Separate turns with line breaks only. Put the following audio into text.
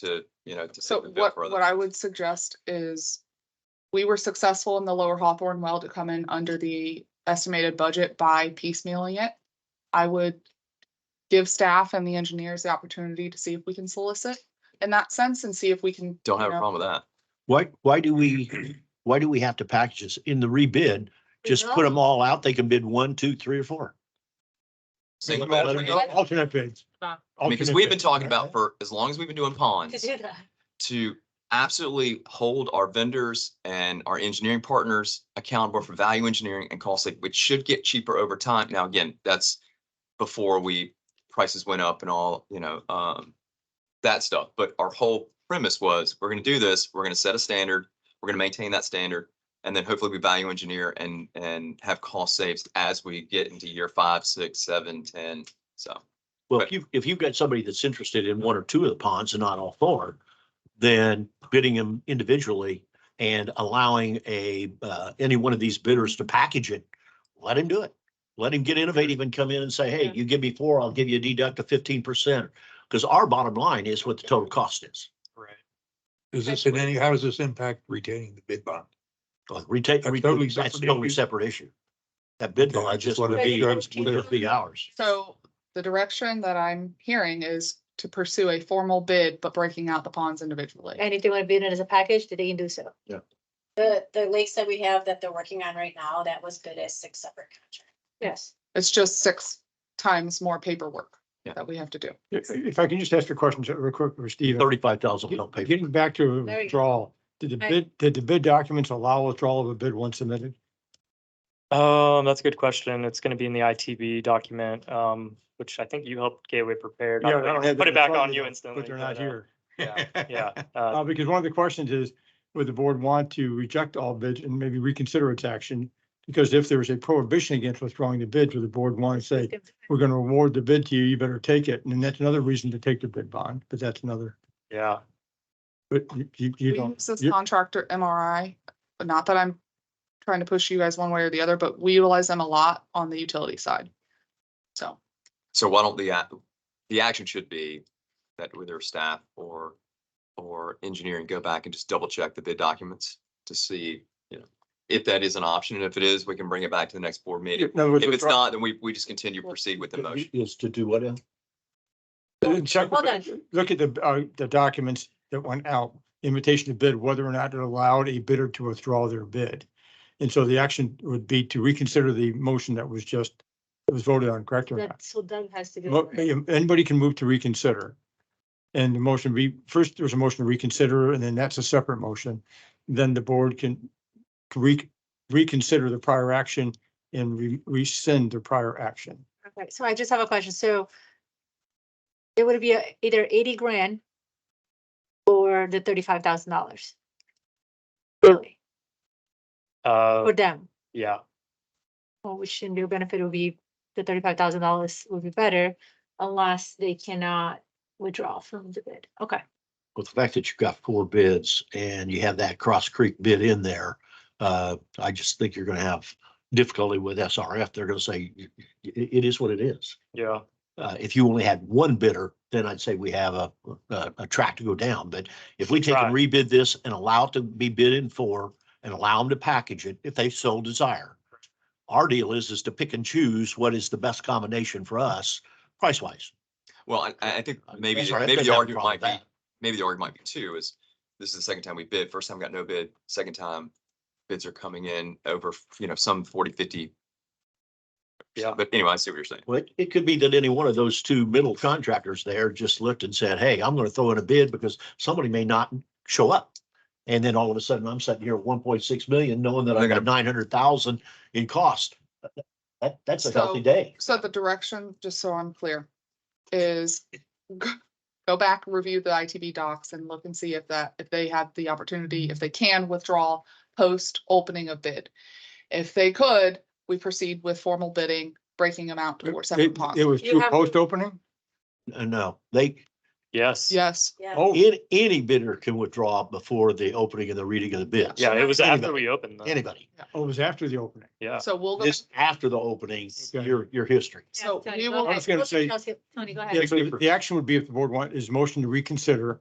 to, you know, to
So
take the bill
what,
for other
what I
things.
would suggest is, we were successful in the lower Hawthorne well to come in under the estimated budget by piecemealing it. I would give staff and the engineers the opportunity to see if we can solicit in that sense and see if we can.
Don't
you
have a
know,
problem with that.
Why, why do we, why do we have to package this in the rebid? Just put them all out. They can bid one, two, three or four.
Single
Let
bidder.
them go Alternate bids.
I mean, because
Alternate
we've been
bid.
talking about for as long as we've been doing ponds, to absolutely hold our vendors and our engineering partners accountable for value engineering and cost, like, which should get cheaper over time. Now, again, that's before we, prices went up and all, you know, um, that stuff. But our whole premise was, we're gonna do this, we're gonna set a standard, we're gonna maintain that standard. And then hopefully we value engineer and, and have cost saves as we get into year five, six, seven, ten, so.
Well, if you, if you've got somebody that's interested in one or two of the ponds and not all four, then bidding them individually and allowing a, uh, any one of these bidders to package it, let him do it. Let him get innovative and come in and say, hey,
Yeah.
you give me four, I'll give you a deduct of fifteen percent. Because our bottom line is what the total cost is.
Right. Is this in
Basically.
any, how does this impact retaining the bid bond?
Retake,
That's
re-
totally
that's
separate
totally
issue.
separate issue. That bid
Okay, I
bond
just
just
wanted
would
to
be,
make sure I was
would just be ours.
So the direction that I'm hearing is to pursue a formal bid, but breaking out the ponds individually.
And if they want to bid it as a package, then they can do so.
The, the lakes that we have that they're working on right now, that was bid as six separate contracts.
Yes.
It's just six times more paperwork
Yeah.
that we have to do.
If if I can just ask a question to- real quick for Steve.
Thirty-five thousand, we don't pay. for it.
Getting back to
There you go.
withdrawal, did the
Right.
bid, did the bid documents allow withdrawal of a bid once submitted?
Um, that's a good question. It's gonna be in the ITB document, um, which I think you helped Gateway prepare. not that I can Put it back on you instantly.
But they're not
uh,
here.
Yeah, yeah. Uh,
Uh, because one of the questions is, would the board want to reject all bids and maybe reconsider its action? Because if there was a prohibition against withdrawing the bids, would the board want to say, we're going to award the bid to you, you better take it? And that's another reason to take the bid bond, but that's another,
yeah,
but you- you, you
We
don't.
use this
you-
contractor MRI, but not that I'm trying to push you guys one way or the other, but we utilize them a lot on the utility side. So
So why don't the, ac- the action should be that with their staff or, or engineering, go back and just double check the bid documents to see, you know, if that is an option. And if it is, we can bring it back to the next board meeting.
In other words,
If it's
withdraw-
not, then we, we just continue, proceed with the motion.
Is to do what? Al?
Check,
Hold on.
look at the, uh, the documents that went out, invitation to bid, whether or not it allowed a bidder to withdraw their bid. And so the action would be to reconsider the motion that was just, that was voted on, correct or not?
That, so Doug has to
Mo- um,
do. it.
Anybody can move to reconsider. And the motion be, first, there's a motion to reconsider, and then that's a separate motion. Then the board can re- reconsider the prior action and re- rescind the prior action.
Okay, So I just have a question. So it would be a- either eighty grand or the thirty-five thousand dollars. Really,
uh,
for them,
yeah,
well, which in their benefit would be the thirty-five thousand dollars would be better unless they cannot withdraw from the bid. Okay.
With the fact that you've got four bids and you have that Cross Creek bid in there, uh, I just think you're gonna have difficulty with SRF. They're gonna say, "Y- y- it, it is what it is.
yeah.
Uh, if you only had one bidder, then I'd say we have a, a, a track to go down. But if we take and rebid this and allow it to be bid in four and allow them to package it if they so desire. Our deal is, is to pick and choose what is the best combination for us price wise.
Well, I, I I think maybe, maybe the argument might be, maybe the argument might be too, is this is the second time we bid. First time got no bid, second time bids are coming in over, you know, some 40, 50.
Yeah.
But anyway, I see what you're saying.
Well, it- it could be that any one of those two middle contractors there just looked and said, hey, I'm gonna throw in a bid because somebody may not show up. And then all of a sudden, I'm sitting here at one point six million, knowing that I
They're
got nine hundred thousand in cost. That, that's a healthy
So-
day.
so the direction, just so I'm clear, is g- go back, review the ITB docs and look and see if that, if they have the opportunity, if they can withdraw post opening of bid. If they could, we proceed with formal bidding, breaking them out to four separate
It
ponds.
it was
You
through
have-
post opening?
Uh, No, they,
Yes.
Yes,
Yeah,
Oh,
any, any bidder can withdraw before the opening and the reading of the bids.
Yeah, it was after
Anybody.
we opened them.
Anybody.
oh, it was after the opening.
Yeah,
so we'll go. back-
This after the opening,
Okay.
your, your history.
Yeah,
So
Tony,
we
go
will
ahead.
I was gonna
Look at
say-
Chelsea. Tony, go ahead.
Yeah, so the action would be if the board want, is motion to reconsider